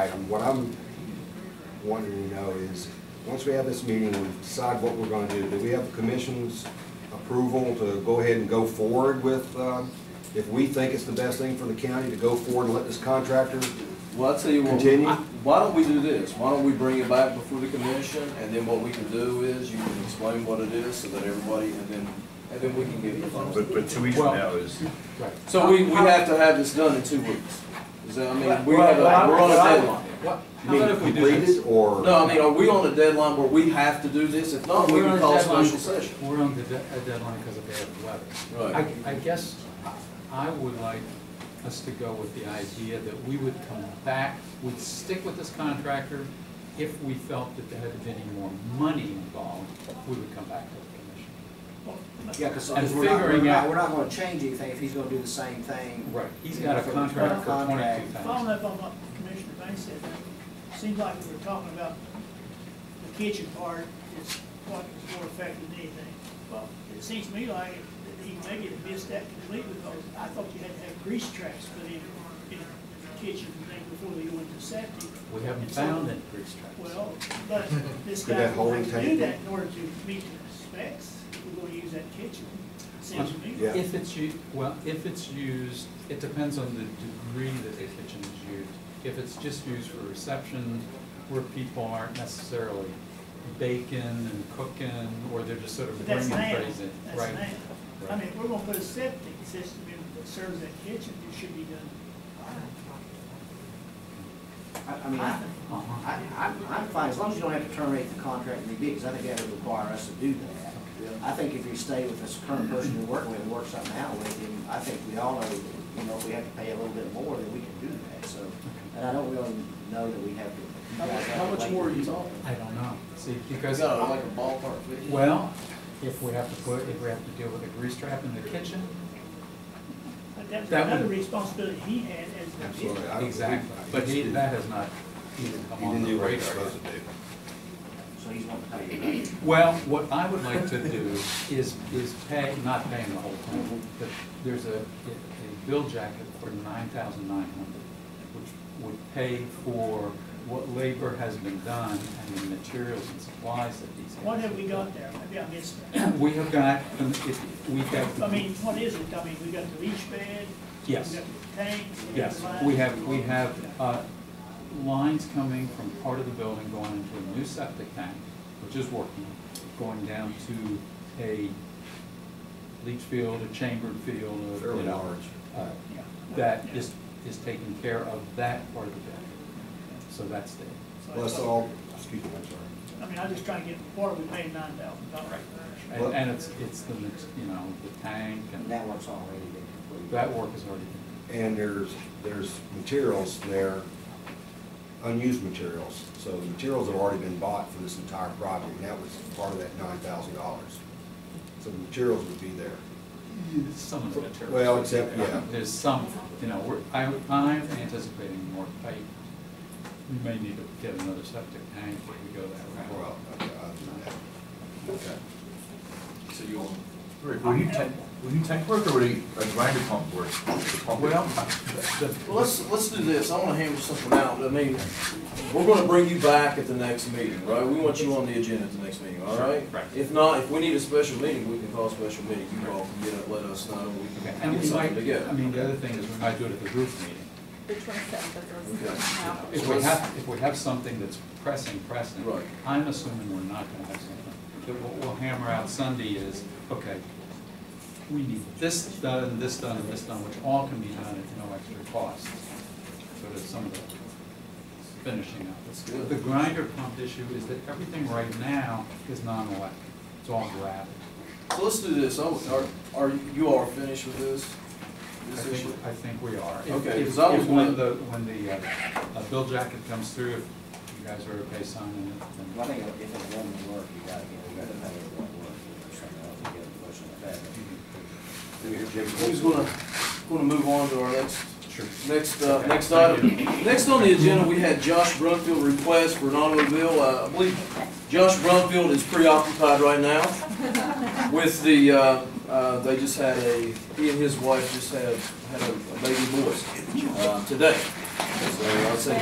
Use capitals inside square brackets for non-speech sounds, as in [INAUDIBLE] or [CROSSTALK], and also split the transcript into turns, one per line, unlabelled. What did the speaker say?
item. What I'm wanting to know is, once we have this meeting and decide what we're gonna do, do we have the commission's approval to go ahead and go forward with, um, if we think it's the best thing for the county to go forward and let this contractor?
Well, I'll tell you what.
Continue.
Why don't we do this? Why don't we bring it back before the commission, and then what we can do is, you can explain what it is, so that everybody, and then, and then we can give you the final.
But, but two weeks from now is,
So we, we have to have this done in two weeks. Is that, I mean, we have, a-
Well,
we're on a
well, I-
deadline.
What,
You
how
mean
about if we do this?
Completed or?
No, I mean, are we on a deadline where we have to do this? If not, we
We're on
can
a
call a
deadline-
special session.
We're on the de- a deadline because of bad weather.
Right.
I, I guess I would like us to go with the idea that we would come back, we'd stick with this contractor. If we felt that there had been any more money involved, we would come back to the
Yeah, because
And
we're not, we're
figuring out-
not, we're not gonna change anything if he's gonna do the same thing.
commission. Right. He's got a
For-
contract for
contract.
twenty-two thousand.
Following up on what Commissioner Banks said, it seems like we were talking about the kitchen part is what is more effective than anything. Well, it seems to me like that he maybe had missed that completely, because I thought you had to have grease traps put in, in the kitchen thing before they go into septic.
We haven't found any grease traps.
Well, but
[LAUGHS]
this
Could
guy
that
will
holding
have to do
tank-
that in order to meet the specs, if we're gonna use that kitchen, seems to me.
Yeah.
If it's u, well, if it's used, it depends on the degree that the kitchen is used. If it's just used for reception, where people aren't necessarily baking and cooking, or they're just sort of
But
bringing
that's
things in.
now,
Right.
that's now. I mean, if we're gonna put a septic system in that serves that kitchen, it should be done.
I, I mean, I,
Uh-huh.
I, I'm- I'm fine, as long as you don't have to terminate the contract and rebid, because I think that would require us to do that. I think if you stay with this current person you're working with and work something out with him, I think we all know, that, you know, if we have to pay a little bit more, then we can do that, so. And I don't really know that we have to.
How much, how much more are you talking?
I don't know, see,
Is
because,
that like a ballpark figure?
well, if we have to put, if we have to deal with a grease trap in the kitchen,
But that's
That would-
another responsibility he had as the
Absolutely. I don't
exactly,
believe-
but he, that has not even come
He
on
didn't
the
do what he
radar.
was supposed to do.
So he's wanting to pay you. right?
Well, what I would like to do is, is pay, not paying the whole thing, but there's a, a bill jacket for nine thousand nine hundred, which would pay for what labor has been done and the materials and supplies that these guys.
What have we got there? Maybe I missed that.
done? We have got, um, if- we have.
I mean, what is it? I mean, we got the leach bed?
Yes.
We got the tank?
Yes,
got the
we
lines.
have, we have uh, lines coming from part of the building going into a new septic tank, which is working, going down to a leach field, a chambered field, a, you
Fairly
know,
large.
uh, yeah, That is, is taking care of that part of the building. So that's there.
So I
Plus
thought-
all, excuse me, I'm sorry.
I mean, I'm just trying to get, what are we paying nine thousand dollars?
And- And it's, it's the, mix- you know, the tank
And
and
that work's already been completed.
that work is already done.
And there's, there's materials there, unused materials. So the materials have already been bought for this entire project, and that was part of that nine thousand dollars. So the materials would be there.
Some of the materials.
Well, except, yeah.
There's some, you know, we're, I, I'm anticipating more pipe. We may need to get another septic tank if we go that route.
Well, uh, okay, other than that. Okay.
So you want?
Rick, will you tank, will you tank work or will you a grinder pump work? The pump-
Well,
Well, let's, let's do this, I wanna hammer something out, I mean, we're gonna bring you back at the next meeting, right? We want you on the agenda at the next meeting, all right?
Right.
If not, if we need a special meeting, we can call a special meeting, you all can get it, let us know, we
okay,
can
and
get
we
something
might, I
together.
mean, the other thing is we might do it at the group meeting.
The twenty-seventh of
Okay.
this now.
If we have, if we have something that's pressing, pressing.
Right.
I'm assuming we're not gonna have something. But what we'll hammer out Sunday is, okay, we need this done, this done, and this done, which all can be done at no extra cost. So there's some of the finishing up.
That's good.
The grinder pump issue is that everything right now is non-electric. It's all gravel.
So let's do this, Oh, are, are, you all finished with this?
I
This issue?
think, I think we are. If-
Okay,
if-
'cause I was
if when
wondering-
the, when the, uh, uh, bill jacket comes through, if you guys are okay signing it, then.
Well, I think if it doesn't work, you gotta get, you gotta pay it won't work, or something else, you get a push on that.
Who's gonna, gonna move on to our next,
Sure.
next, uh,
Okay,
next
thank
item. Next on the agenda, we had Josh Brumfield request for an automobile, uh, I believe Josh Brumfield is preoccupied right now with the, uh, uh, they just had a, he and his wife just had, had a baby boy, uh, today. So I'd say